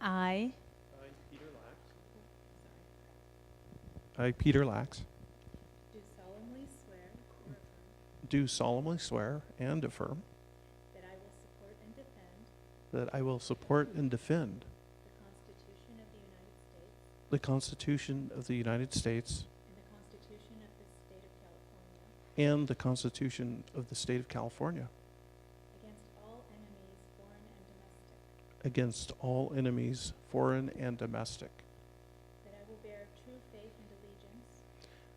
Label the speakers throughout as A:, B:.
A: I
B: I, Peter Lax. I, Peter Lax,
C: Do solemnly swear or affirm
B: do solemnly swear and affirm
C: that I will support and defend
B: that I will support and defend
C: the Constitution of the United States
B: the Constitution of the United States
C: and the Constitution of the State of California
B: and the Constitution of the State of California
C: against all enemies, foreign and domestic,
B: against all enemies, foreign and domestic,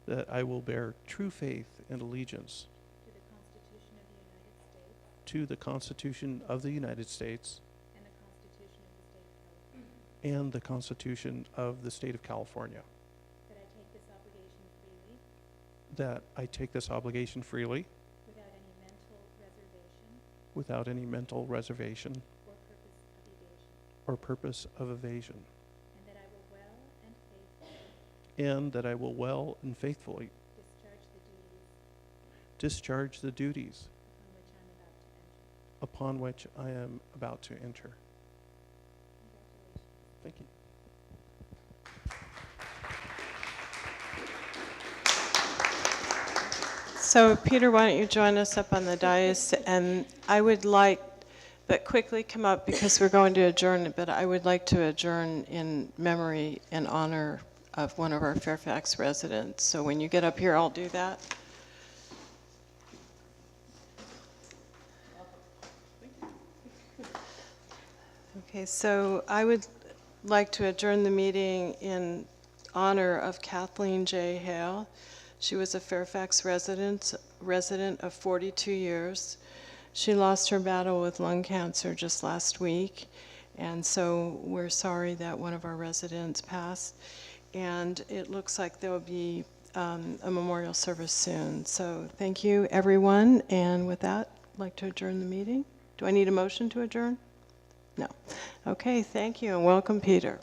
C: that I will bear true faith and allegiance
B: that I will bear true faith and allegiance
C: to the Constitution of the United States
B: to the Constitution of the United States
C: and the Constitution of the State of California,
B: and the Constitution of the State of California,
C: that I take this obligation freely
B: that I take this obligation freely
C: without any mental reservation
B: without any mental reservation
C: or purpose of evasion,
B: or purpose of evasion,
C: and that I will well and faithfully
B: and that I will well and faithfully
C: discharge the duties
B: discharge the duties
C: upon which I'm about to enter.
B: upon which I am about to enter.
C: Congratulations.
B: Thank you.
D: So Peter, why don't you join us up on the dais? And I would like, but quickly come up because we're going to adjourn, but I would like to adjourn in memory and honor of one of our Fairfax residents. So when you get up here, I'll do that. Okay, so I would like to adjourn the meeting in honor of Kathleen J. Hale. She was a Fairfax resident, resident of 42 years. She lost her battle with lung cancer just last week, and so we're sorry that one of our residents passed. And it looks like there'll be um, a memorial service soon. So thank you, everyone, and with that, I'd like to adjourn the meeting. Do I need a motion to adjourn? No. Okay, thank you, and welcome, Peter.